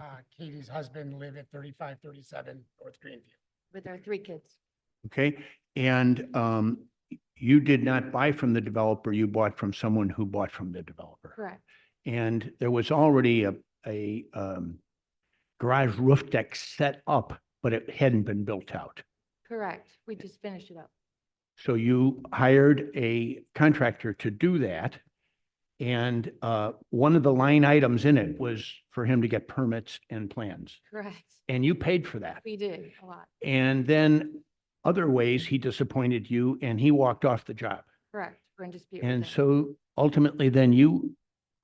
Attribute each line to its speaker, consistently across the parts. Speaker 1: uh, Katie's husband live at thirty-five, thirty-seven North Greenview.
Speaker 2: with our three kids.
Speaker 3: Okay, and um, you did not buy from the developer, you bought from someone who bought from the developer.
Speaker 2: Correct.
Speaker 3: And there was already a, a um, garage roof deck set up, but it hadn't been built out.
Speaker 2: Correct. We just finished it up.
Speaker 3: So you hired a contractor to do that. And uh, one of the line items in it was for him to get permits and plans.
Speaker 2: Correct.
Speaker 3: And you paid for that.
Speaker 2: We did a lot.
Speaker 3: And then other ways, he disappointed you and he walked off the job.
Speaker 2: Correct. We're in dispute. with
Speaker 3: And
Speaker 2: him.
Speaker 3: so ultimately, then you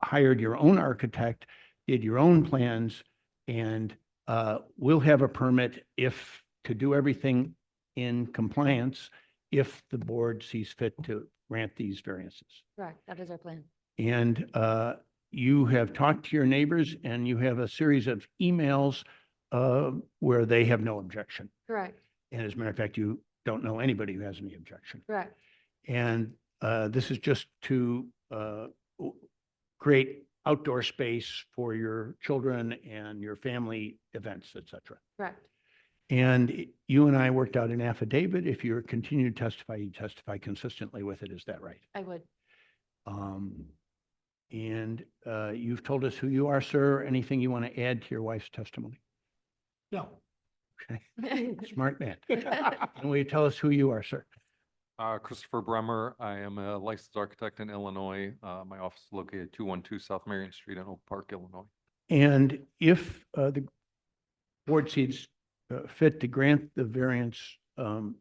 Speaker 3: hired your own architect, did your own plans, and uh, will have a permit if, to do everything in compliance, if the board sees fit to grant these variances.
Speaker 2: Correct. That is our plan.
Speaker 3: And uh, you have talked to your neighbors, and you have a series of emails uh, where they have no objection.
Speaker 2: Correct.
Speaker 3: And as a matter of fact, you don't know anybody who has any objection.
Speaker 2: Correct.
Speaker 3: And uh, this is just to uh, w- create outdoor space for your children and your family events, et cetera.
Speaker 2: Correct.
Speaker 3: And i- you and I worked out an affidavit. If you're continued to testify, you testify consistently with it. Is that right?
Speaker 2: I would.
Speaker 3: Um, And uh, you've told us who you are, sir. Anything you want to add to your wife's testimony?
Speaker 1: No.
Speaker 3: Smart man. And will you tell us who you are, sir?
Speaker 4: Uh, Christopher Bremer, I am a licensed architect in Illinois. Uh, my office is located two one two South Marion Street in Oak Park, Illinois.
Speaker 3: And if uh, the board sees uh, fit to grant the variance, um,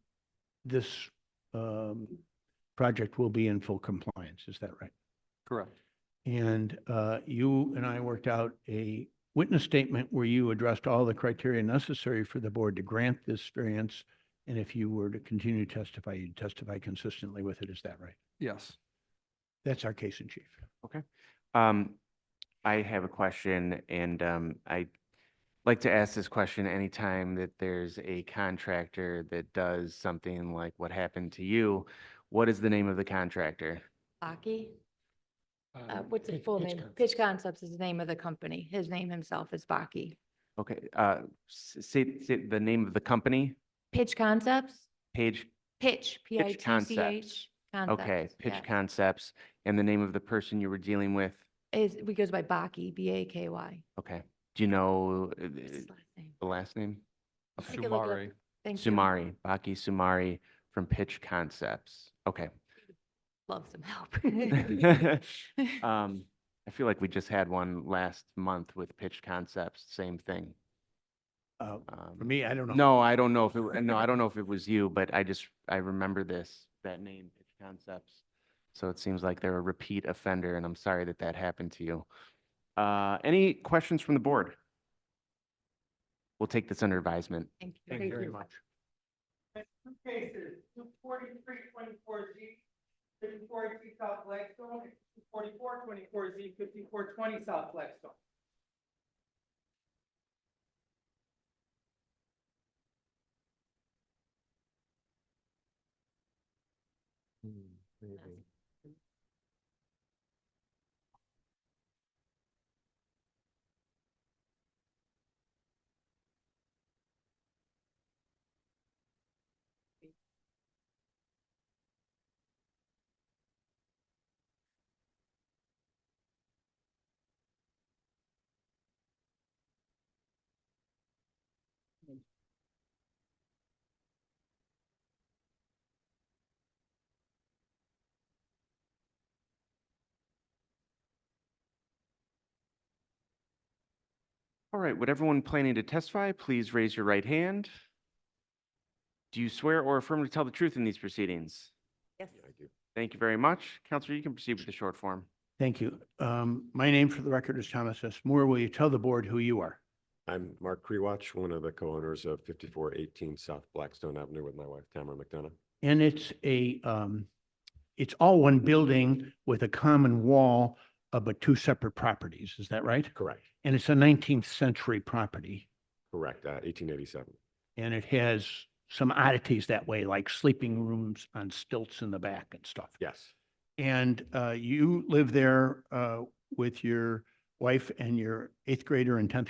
Speaker 3: this um, project will be in full compliance, is that right?
Speaker 4: Correct.
Speaker 3: And uh, you and I worked out a witness statement where you addressed all the criteria necessary for the board to grant this variance. And if you were to continue to testify, you'd testify consistently with it, is that right?
Speaker 4: Yes.
Speaker 3: That's our case in chief.
Speaker 5: Um, I have a question and, um, I like to ask this question anytime that there's a contractor that does something like what happened to you. What is the name of the contractor?
Speaker 2: Aki, uh,
Speaker 1: Uh,
Speaker 2: what's his
Speaker 1: Pitch-
Speaker 2: full
Speaker 1: Pitch
Speaker 2: name?
Speaker 1: Concepts.
Speaker 2: Pitch Concepts is the name of the company. His name himself is Baki.
Speaker 5: Okay, uh, s- say, say the name of the company,
Speaker 2: Pitch Concepts?
Speaker 5: Page,
Speaker 2: Pitch, P I T C H.
Speaker 5: Concepts. okay, Pitch Concepts, and the name of the person you were dealing with.
Speaker 2: Is, we goes by Baki, B A K Y.
Speaker 5: Okay, do you know uh,
Speaker 2: That's his last name.
Speaker 5: the last name?
Speaker 2: Take a look at-
Speaker 4: Shumari.
Speaker 2: Thank you.
Speaker 5: Sumari, Baki Sumari from Pitch Concepts. Okay.
Speaker 2: Love some help.
Speaker 5: Um, I feel like we just had one last month with Pitch Concepts, same thing.
Speaker 3: Uh,
Speaker 5: Um,
Speaker 3: For me, I don't know.
Speaker 5: No, I don't know if, it w- no, I don't know if it was you, but I just, I remember this, that name, Pitch Concepts. So it seems like they're a repeat offender and I'm sorry that that happened to you. Uh, any questions from the board? We'll take this under advisement.
Speaker 2: Thank you.
Speaker 3: Thank you very much.
Speaker 6: two cases, two forty-three twenty-four Z, fifty-four G South Blackstone, and two forty-four twenty-four Z, fifty-four twenty South Blackstone.
Speaker 5: All right, would everyone planning to testify, please raise your right hand? Do you swear or affirm to tell the truth in these proceedings?
Speaker 2: Yes.
Speaker 5: Thank you very much. Counselor, you can proceed with the short form.
Speaker 3: Thank you. Um, My name for the record is Thomas S. Moore. Will you tell the board who you are?
Speaker 7: I'm Mark Krewatch, one of the co-owners of fifty-four eighteen South Blackstone Avenue with my wife Tamara McDonough.
Speaker 3: And it's a, um, it's all one building with a common wall, uh, but two separate properties. Is that right?
Speaker 7: Correct.
Speaker 3: And it's a nineteenth century property
Speaker 7: Correct, uh, eighteen eighty-seven.
Speaker 3: and it has some oddities that way, like sleeping rooms on stilts in the back and stuff.
Speaker 7: Yes,
Speaker 3: And uh, you live there uh, with your wife and your eighth grader and tenth